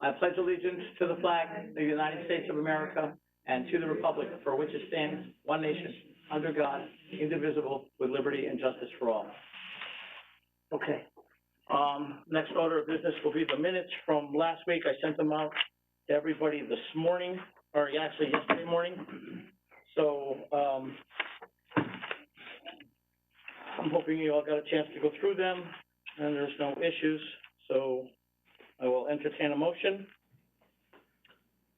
I pledge allegiance to the flag of the United States of America and to the republic for which it stands, one nation, under God, indivisible, with liberty and justice for all. Okay. Um, next order of business will be the minutes from last week. I sent them out to everybody this morning, or actually yesterday morning. So, um, I'm hoping you all got a chance to go through them and there's no issues. So I will entertain a motion.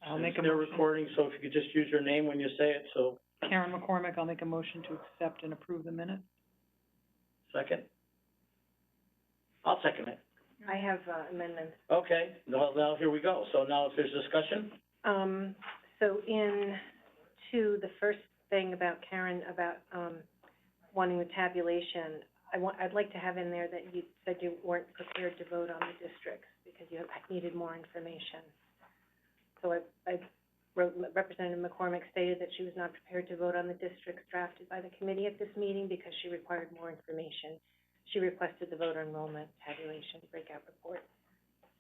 I'll make a They're motion, recording, so if you could just use your name when you say it, so, Karen McCormick, I'll make a motion to accept and approve the minutes. second? I'll second it. I have uh, amendments. Okay, well, now, here we go. So now if there's discussion, Um, so in to the first thing about Karen, about, um, wanting the tabulation, I want, I'd like to have in there that you said you weren't prepared to vote on the districts because you needed more information. So I, I wrote, Representative McCormick stated that she was not prepared to vote on the districts drafted by the committee at this meeting because she required more information. She requested the voter enrollment tabulation breakout report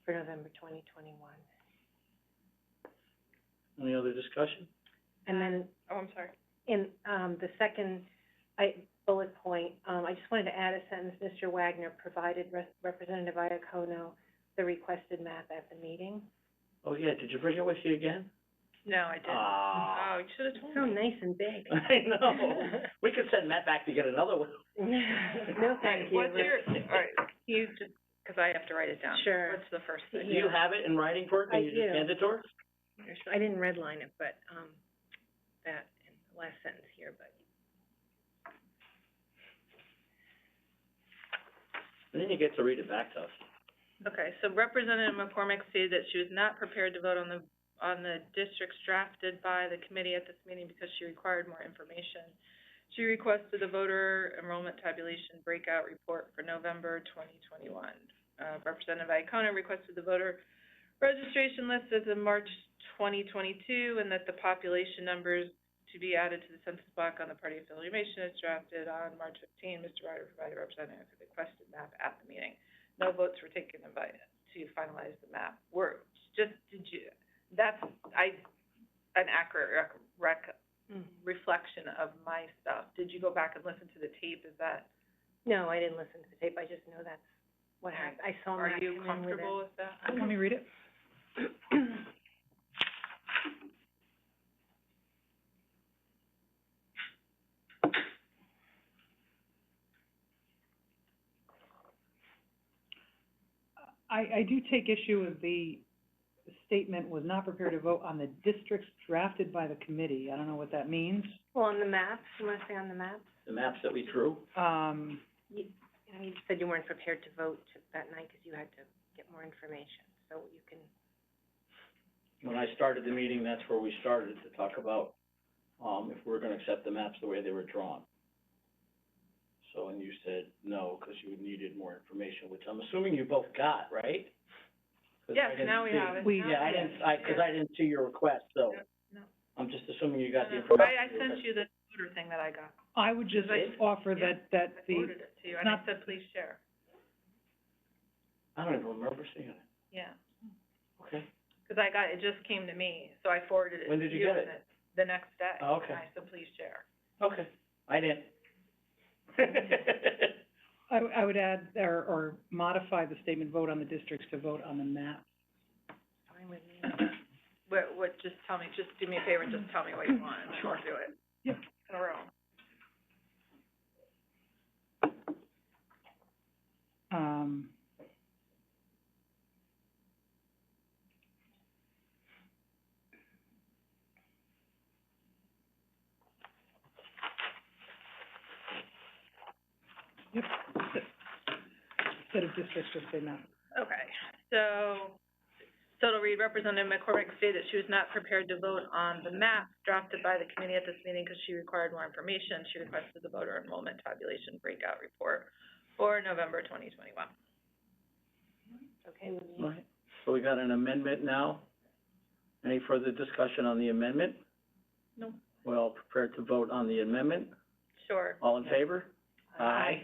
for November twenty twenty-one. any other discussion? And then. Oh, I'm sorry. In, um, the second, I, bullet point, um, I just wanted to add a sentence, Mr. Wagner provided Re- Representative Iacono the requested map at the meeting. Oh, yeah, did you bring it with you again? No, I Oh, Ah. you should It's so nice and big. I know. We could send Matt back to get another one. No, thank you. What's your, all right, can you just, because I have to write it down. Sure. What's the first Do thing? you have it in writing for it? Can I you just do. hand it to her? I didn't redline it, but, um, that, and the last sentence here, but. And then you get to read it back to us. Okay, so Representative McCormick stated that she was not prepared to vote on the, on the districts drafted by the committee at this meeting because she required more information. She requested the voter enrollment tabulation breakout report for November twenty twenty-one. Uh, Representative Iacona requested the voter registration list as of March twenty twenty-two and that the population numbers to be added to the census block on the party affiliation is drafted on March fifteen. Mr. Ryder provided representative with the requested map at the meeting no votes were taken to vi- to finalize the map. Were, just, did you, that's, I, an accurate rec, rec, Mm-hmm. reflection of my stuff. Did you go back and listen to the tape? Is that, No, I didn't listen to the tape, I just know that's what happened, I saw are Matt you come in with it. Um, comfortable with that? Let me read it. I, I do take issue with the statement was not prepared to vote on the districts drafted by the committee. I don't know what that means. Well, on the maps, you wanna say on the maps? The maps that we drew. Um, You, you know, you said you weren't prepared to vote that night because you had to get more information, so you can, When I started the meeting, that's where we started to talk about, um, if we're gonna accept the maps the way they were drawn. So, and you said no, because you needed more information, which I'm assuming you both got, right? 'Cause I Yes, didn't now we see. have it. We- Now Yeah, I we have didn't, I, because I didn't see your request, so. No, no. I'm just assuming you got the it. information. Uh, I, I sent you the voter thing that I got. I would just Right. offer Yeah. that, that I the, forwarded it to you, and I not- said, please share. I don't even remember seeing it, Yeah, okay? because I got, it just came to me, so I forwarded it to you. When did you get and it? The next day. Oh, okay. And I said, please share. Okay, I didn't. I, I would add, or, or modify the statement, vote on the districts to vote on the map. fine with me. What, what, just tell me, just do me a favor and just tell me what you want, and I'll do it. Yep. In a row. Um, yep, instead of districts, just say map. Okay, so, so it'll read, Representative McCormick stated that she was not prepared to vote on the map drafted by the committee at this meeting because she required more information. She requested the voter enrollment tabulation breakout report for November twenty twenty-one. Okay with me? Right, so we got an amendment now. Any further discussion on the amendment? No. We're all prepared to vote on the amendment. Sure. All in favor? Aye.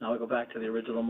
Now we go back to the original